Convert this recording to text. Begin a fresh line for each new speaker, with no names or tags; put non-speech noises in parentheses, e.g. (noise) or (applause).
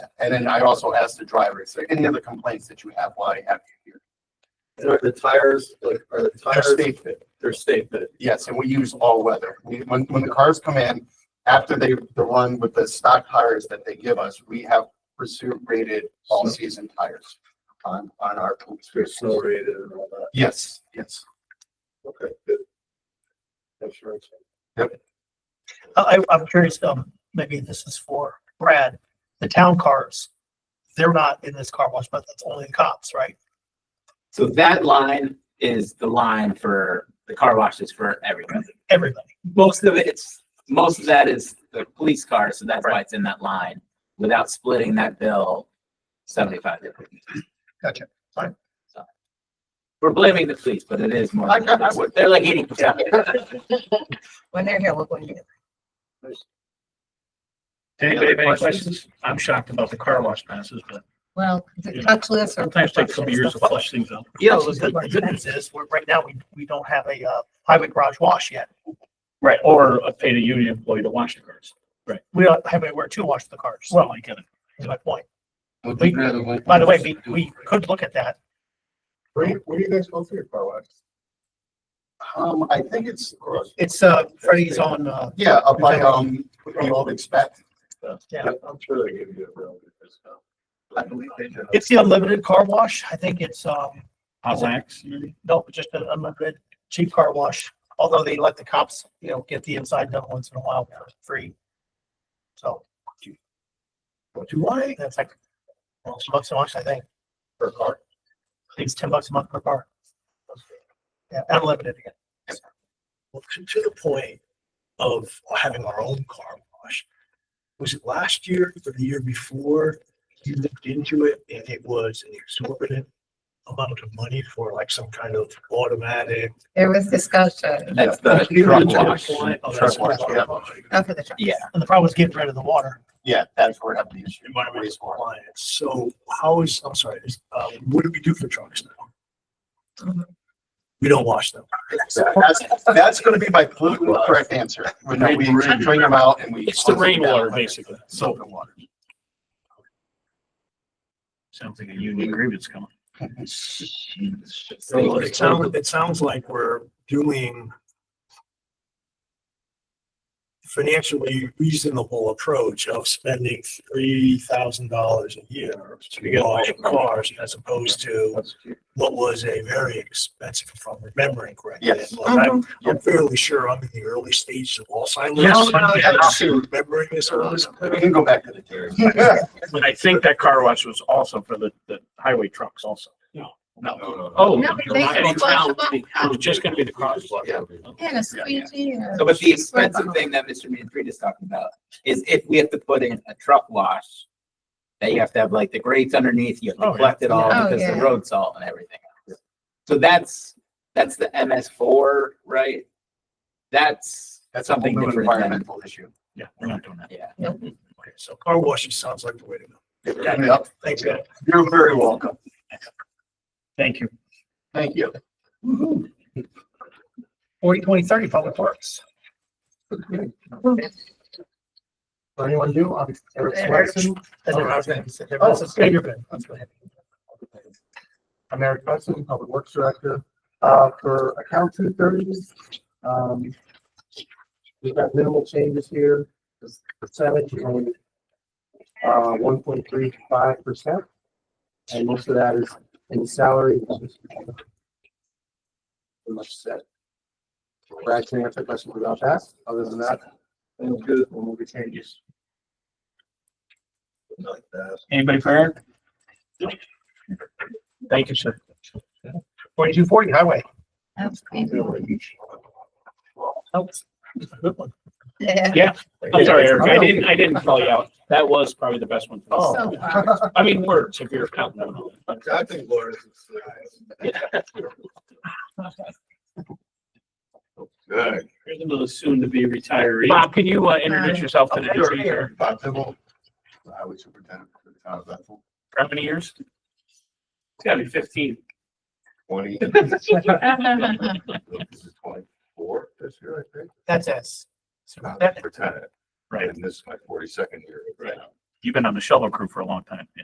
And then I also asked the driver, is there any other complaints that you have while I have you here?
And are the tires, like, are the
They're
tires,
state fit.
they're state fit?
Yes, and we use all weather. We, when, when the cars come in, after they, the run with the stock tires that they give us, we have pursuit rated all season tires on, on our.
They're snow rated and all that.
Yes, yes.
Okay, good. Insurance.
I, I'm curious, um, maybe this is for Brad, the town cars, they're not in this car wash, but that's only the cops, right?
So that line is the line for the car washes for everybody.
Everybody.
Most of it's, most of that is the police car, so that's why it's in that line, without splitting that bill seventy-five different.
Gotcha. Fine.
So, We're blaming the police, but it is more,
I- I- I
(laughs)
would-
they're like eighty percent.
When they're here, look what you.
Anybody have any questions? I'm shocked about the car wash passes, but
Well, is it touchless or?
sometimes it takes a couple years to flush things out.
Yeah, so the the good news is, we're, right now, we, we don't have a, uh, highway garage wash yet.
Right. Or a paid a union employee to wash the cars.
We don't have anywhere to wash the cars.
Well, I get it.
That's my point.
Would
We-
you rather wait-
By the way, we, we could look at that.
Where do you, where do you guys go through your car wash?
Um, I think it's,
It's, uh, Freddie's on, uh,
yeah, up by, um, what you all expect.
yeah.
I'm sure they give you a real good discount.
I believe they do.
It's the unlimited car wash. I think it's, um,
How's that? maybe?
no, just an unlimited cheap car wash. Although they let the cops, you know, get the inside done once in a while for free. So
Do I?
that's like, well, it's bucks a month, I think.
Per car?
I think it's ten bucks a month per car. Yeah, unlimited again.
Well, to- to the point of having our own car wash, was it last year or the year before? You looked into it and it was an exorbitant amount of money for like some kind of automatic.
There was discussion.
That's the truck wash.
Oh, that's
Truck wash, yeah.
Oh, for the truck.
Yeah,
And the problem is getting rid of the water.
Yeah, that's where I have the issue. Wastewater.
compliance. So how is, I'm sorry, is, uh, what do we do for trucks now?
Mhm.
We don't wash them.
That's, that's gonna be my politically correct answer. When we drain them out and we.
It's the rainwater, basically.
Soap and water. (laughs)
Sounds like a union grievance coming.
So it sounds, it sounds like we're doing financially reasonable approach of spending three thousand dollars a year to wash cars as opposed to what was a very expensive, if I'm remembering correctly.
Yes.
Look,
Uh-huh.
I'm, I'm fairly sure I'm in the early stages of
No,
Alzheimer's.
no, no.
I'm actually Remembering this.
We can go back to the dairy.
But I think that car wash was also for the, the highway trucks also.
(laughs)
Oh.
(laughs) No, they-
It
they-
was just gonna be the car wash.
Yeah.
And a squeegee and
So,
a.
but the expensive thing that Mr. Manfred is talking about is if we have to put in a truck wash, that you have to have like the grates underneath, you have
Oh,
to
yeah.
collect it all
Oh,
because the
yeah.
road salt and everything. else. So that's, that's the MS four, right? That's
That's a whole
something
new
different than,
environmental issue.
Yeah, we're not doing that.
yeah.
Okay, So car washing sounds like the way to go.
Yep.
Thanks, guys.
You're very welcome.
Thank you.
Thank you.
Forty, twenty, thirty, public works.
Anyone do? Um, Eric Swanson?
That's what I was gonna say.
Oh,
That's a bigger bit. That's what I had.
I'm Eric Swanson, Public Works Director, uh, for account two thirty. Um, we've got minimal changes here, this percentage is only uh, one point three five percent. And most of that is in salary. Pretty much set. Brad, can you answer questions about that? Other than that,
Sounds good.
we'll move to changes.
Like that.
Anybody for Eric? Thank you, sir.
Forty-two, forty highway.
Good
(laughs)
one.
Yeah.
I'm sorry, Eric. I didn't, I didn't call you out. That was probably the best one.
Oh.
So far.
(laughs) I mean, words, if you're counting on all that.
I think Laura's is Good.
Here's another soon-to-be retiree. Bob, can you, uh, introduce yourself to the
Sure.
new year?
Bob Dibble, Highway Superintendent for the town of Bethel,
How many years? It's gotta be fifteen.
twenty, this is twenty-four this year, I think.
That's us.
Not
That-
lieutenant,
Right.
and this is my forty-second year.
Right.
You've been on the shovel crew for a long time. yeah.